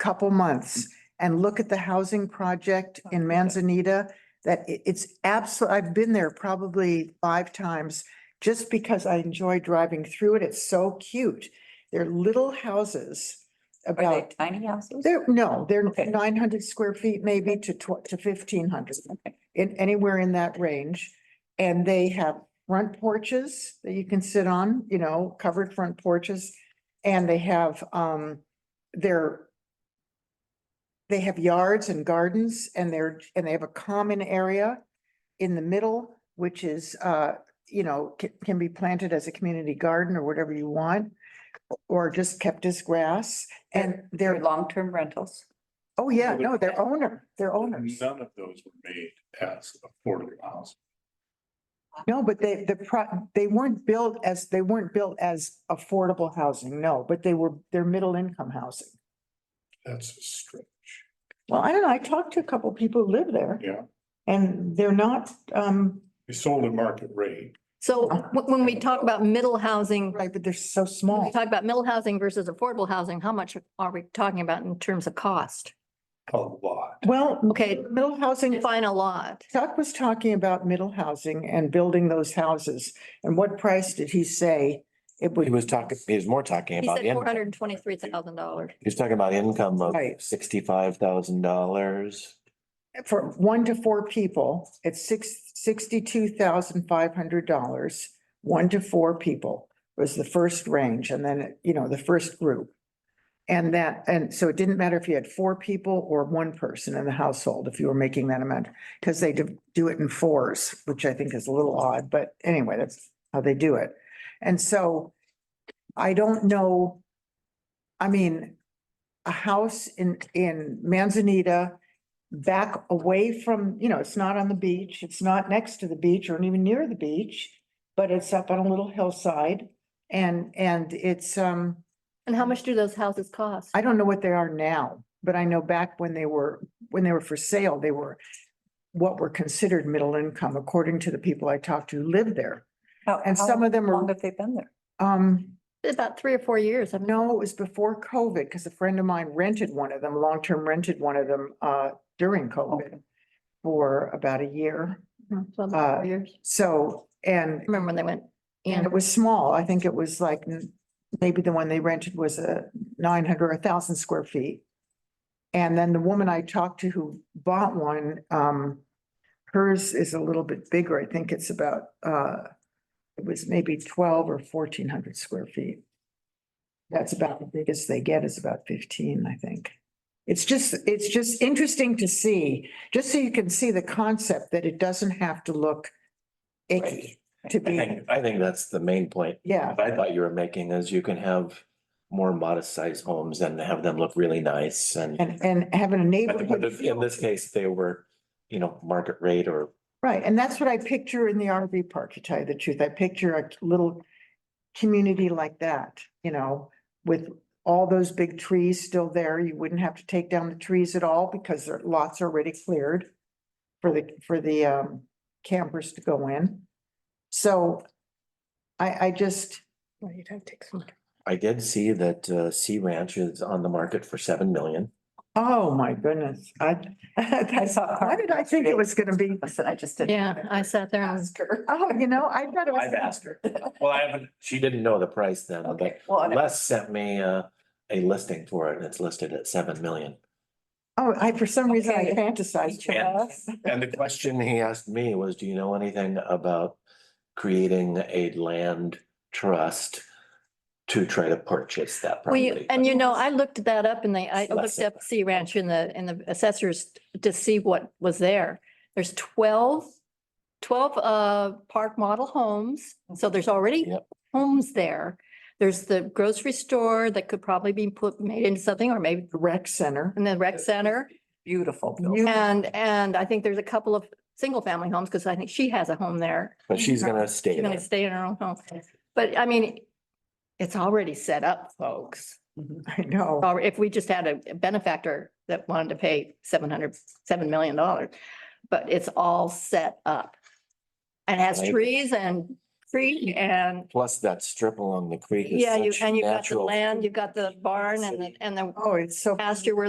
couple months and look at the housing project Oh, in Manzanita. That i- it's absolute, I've been there probably five times just because I enjoy driving through it. It's so cute. They're little houses Are they about, tiny houses? they're, no, they're Okay. nine hundred square feet maybe to tw- to fifteen hundred Okay. in anywhere in that range. And they have front porches that you can sit on, you know, covered front porches. And they have um their they have yards and gardens and they're, and they have a common area in the middle, which is uh, you know, can, can be planted as a community garden or whatever you want. Or just kept as grass and They're they're, long-term rentals. oh yeah, no, they're owner, they're owners. None of those were made as affordable housing. No, but they, the pro, they weren't built as, they weren't built as affordable housing, no, but they were, they're middle income housing. That's a stretch. Well, I don't know, I talked to a couple people who live there Yeah, and they're not, um, they sold at market rate. So wh- when we talk about middle housing, right, but they're so when small. we talk about middle housing versus affordable housing, how much are we talking about in terms of cost? A lot. Well, Okay. middle housing, Define a lot. Chuck was talking about middle housing and building those houses. And what price did he say it He would, was talking, he was more talking He about, said four in- hundred and twenty-three thousand dollars. he was talking about income of Right. sixty-five thousand dollars. for one to four people, it's six, sixty-two thousand five hundred dollars. One to four people was the first range and then, you know, the first group. And that, and so it didn't matter if you had four people or one person in the household, if you were making that amount. Cause they do do it in fours, which I think is a little odd, but anyway, that's how they do it. And so I don't know. I mean, a house in, in Manzanita back away from, you know, it's not on the beach, it's not next to the beach or even near the beach, but it's up on a little hillside and, and it's, um, And how much do those houses cost? I don't know what they are now, but I know back when they were, when they were for sale, they were what were considered middle income, according to the people I talked to who lived there. How- And how some of them are- Long have they been there? Um, About three or four years. I mean, no, it was before COVID, because a friend of mine rented one of them, long-term rented one of them, uh, during COVID for about a year. it's Uh, about four years. So, and Remember when they went And in? it was small. I think it was like, n- maybe the one they rented was a nine hundred, a thousand square feet. And then the woman I talked to who bought one, um, hers is a little bit bigger. I think it's about, uh, it was maybe twelve or fourteen hundred square feet. That's about the biggest they get is about fifteen, I think. It's just, it's just interesting to see, just so you can see the concept that it doesn't have to look icky to I be. think, I think that's the main point. Yeah, I thought you were making is you can have more modest sized homes and have them look really nice and. and, and having a but- but neighborhood. if- In this case, they were, you know, market rate or Right, and that's what I picture in the RV park, to tell you the truth. I picture a little community like that, you know, with all those big trees still there. You wouldn't have to take down the trees at all because their lots are already cleared for the, for the um campers to go in. So I, I just, Well, you'd have to take some- I did see that uh Sea Ranch is on the market for seven million. oh my goodness, I, I that's, saw. why did I think it was gonna be? I said, I just didn't. Yeah, I sat there and Ask her. Oh, you know, I thought it was. I've asked her. Well, I haven't. She didn't know the price then, but Okay, well, and- Les sent me uh a listing for it and it's listed at seven million. Oh, I, for some reason I Okay. fantasized. Each of us. And the question he asked me was, do you know anything about creating a land trust to try to purchase that Well, you- property? and you know, I looked that up and they, I It's less looked than up Sea Ranch in the, in the assessors to see what was there. There's 12 12 uh, park model homes. So there's already Yep. homes there. There's the grocery store that could probably be put, made into something or maybe The Rec center. in the rec center. Beautiful. You- And, and I think there's a couple of single family homes because I think she has a home there. But she's gonna She's stay going there. to stay in her own home. But I mean, it's already set up, folks. I know. Or if we just had a benefactor that wanted to pay seven hundred, seven million dollars, but it's all set up. And has Right. trees and tree and, Plus that strip along the creek is yeah, you, such and you've got the natural land, you've got the barn and the, city. and the Oh, it's so. pasture where the